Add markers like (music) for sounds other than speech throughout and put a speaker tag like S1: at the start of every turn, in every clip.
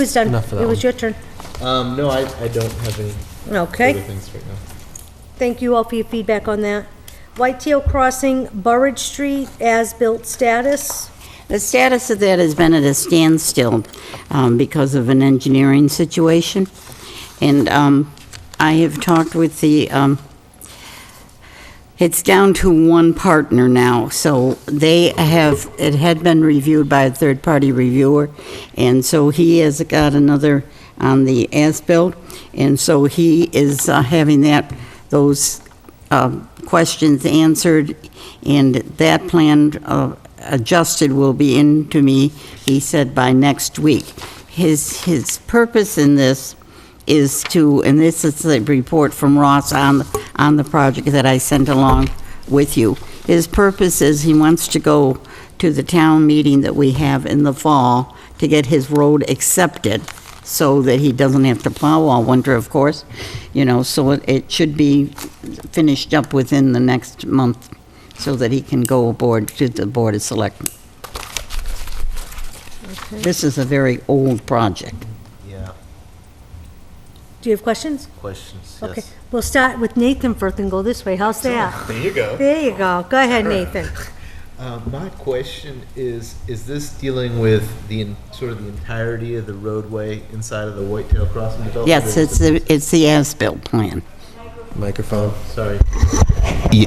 S1: was done.
S2: Enough for that
S1: It was
S2: one.
S1: your turn.
S2: Um, no, I, I don't have any other
S1: Okay.
S2: things right now.
S1: Thank you all for your feedback on that. Whitetail Crossing, Burridge Street, as-built status.
S3: The status of that has been at a standstill um, because of an engineering situation. And um, I have talked with the, um, it's down to one partner now, so they have, it had been reviewed by a third-party reviewer, and so he has got another on the as-built, and so he is uh, having that, those um, questions answered, and that plan uh, adjusted will be in to me, he said, by next week. His, his purpose in this is to, and this is the report from Ross on, on the project that I sent along with you. His purpose is he wants to go to the town meeting that we have in the fall to get his road accepted so that he doesn't have to plow all winter, of course, you know, so it, it should be finished up within the next month so that he can go aboard to the Board of Selectmen. This is a very old project.
S2: Yeah,
S1: Do you have questions?
S2: questions,
S1: Okay, we'll start with Nathan first and go this way. How's that?
S2: There you go.
S1: There you go. Go ahead, Nathan.
S2: Uh, my question is, is this dealing with the, en- sort of the entirety of the roadway inside of the Whitetail Crossing development?
S3: Yes, it's the, it's the as-built plan.
S2: Microphone. Sorry.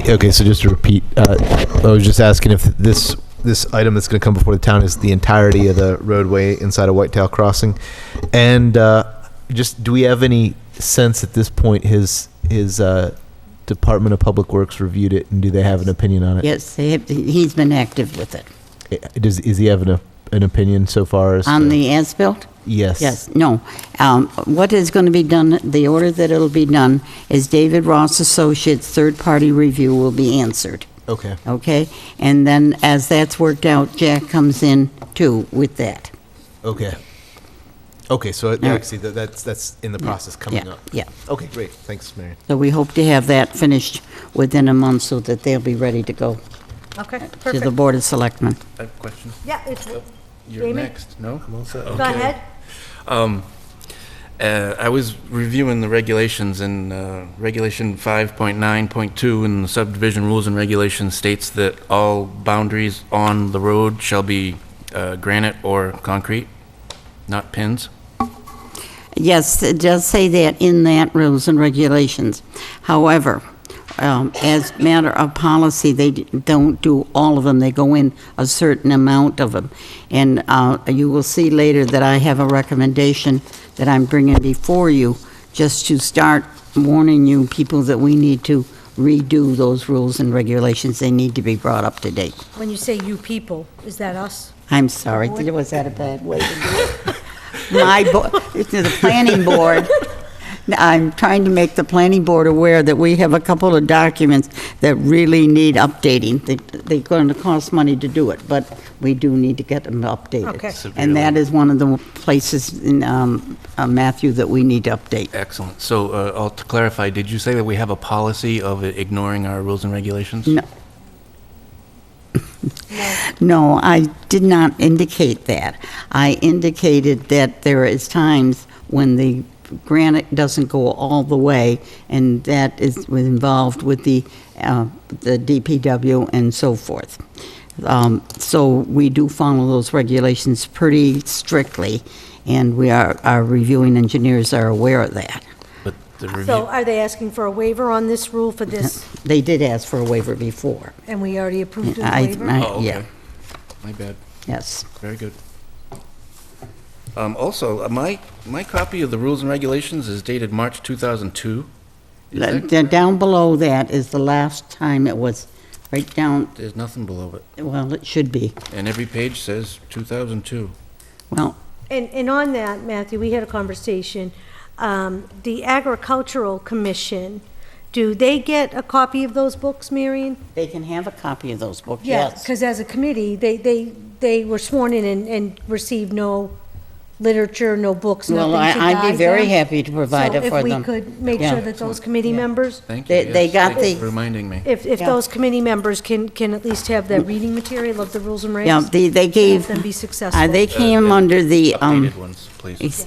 S2: okay, so just to repeat, uh, I was just asking if this, this item that's gonna come before the town is the entirety of the roadway inside of Whitetail Crossing? And, uh, just, do we have any sense at this point, his, his, uh, Department of Public Works reviewed it, and do they have an opinion on it?
S3: Yes, they have, he's been active with it.
S2: I- Does, is he having a, an opinion so far as?
S3: On
S2: to-
S3: the as-built?
S2: Yes.
S3: Yes, no. Um, What is going to be done, the order that it'll be done is David Ross Associates' third-party review will be answered,
S2: Okay.
S3: okay? And then as that's worked out, Jack comes in too with that.
S2: Okay. Okay. So it,
S3: Yeah.
S2: yeah. see, that, that's that's in the process coming
S3: Yeah,
S2: up.
S3: Yeah,
S2: Okay. Great. Thanks, Mary.
S3: so we hope to have that finished within a month so that they'll be ready to go
S1: Okay,
S3: to the
S1: perfect.
S3: Board of Selectmen.
S4: I have a question.
S1: Yeah, it's, go
S4: You're
S1: Jamie?
S4: next, no?
S1: ahead.
S4: Um, uh, I was reviewing the regulations, and uh, Regulation 5.9.2 in the subdivision rules and regulations states that all boundaries on the road shall be uh, granite or concrete, not pins.
S3: Yes, it does say that in that rules and regulations. However, um, as matter of policy, they d- don't do all of them. They go in a certain amount of them. And uh, you will see later that I have a recommendation that I'm bringing before you, just to start warning you people that we need to redo those rules and regulations. They need to be brought up to date.
S1: When you say you people, is that us?
S3: I'm sorry, was that a bad way to do it? My, bo- it's the planning board, I'm trying to make the planning board aware that we have a couple of documents that really need updating. They- They're going to cost money to do it, but we do need to get them updated.
S1: Okay.
S3: And that is one of the places in um, uh, Matthew that we need to update.
S4: Excellent. So uh, I'll to clarify, did you say that we have a policy of ignoring our rules and regulations?
S3: No. No, I did not indicate that. I indicated that there is times when the granite doesn't go all the way, and that is was involved with the, uh, the DPW and so forth. Um, So we do follow those regulations pretty strictly, and we are, our reviewing engineers are aware of that.
S4: But the
S1: So
S4: review,
S1: are they asking for a waiver on this rule for
S2: (laughs)
S1: this,
S3: They did ask for a waiver before.
S1: and we already approved the
S3: I-
S1: waiver?
S3: I-
S4: Oh, okay.
S3: yeah,
S4: my bad.
S3: Yes.
S4: Very good. Um, Also, uh, my, my copy of the rules and regulations is dated March 2002. Is
S3: The-
S4: that-
S3: the- Down below that is the last time it was, right down,
S4: There's nothing below it.
S3: well, it should be.
S4: And every page says 2002.
S3: Well,
S1: And, and on that, Matthew, we had a conversation. Um, The Agricultural Commission, do they get a copy of those books, Marion?
S3: they can have a copy of those books,
S1: Yeah,
S3: yes.
S1: because as a committee, they, they, they were sworn in and, and received no literature, no books, nothing to
S3: Well,
S1: guide
S3: I- I'd be very
S1: them.
S3: happy to provide it for
S1: So if
S3: them.
S1: we could make
S3: Yeah.
S1: sure that those committee members,
S4: Thank you.
S3: They- they
S4: yes,
S3: got
S4: thank you
S3: the-
S4: for Reminding me.
S1: if, if
S3: Yeah.
S1: those committee members can, can at least have that reading material of the rules and regs.
S3: Yeah, they, they
S1: have
S3: gave,
S1: Them be
S3: uh,
S1: successful.
S3: they came under the, um,
S4: Updated ones, please.
S3: ex-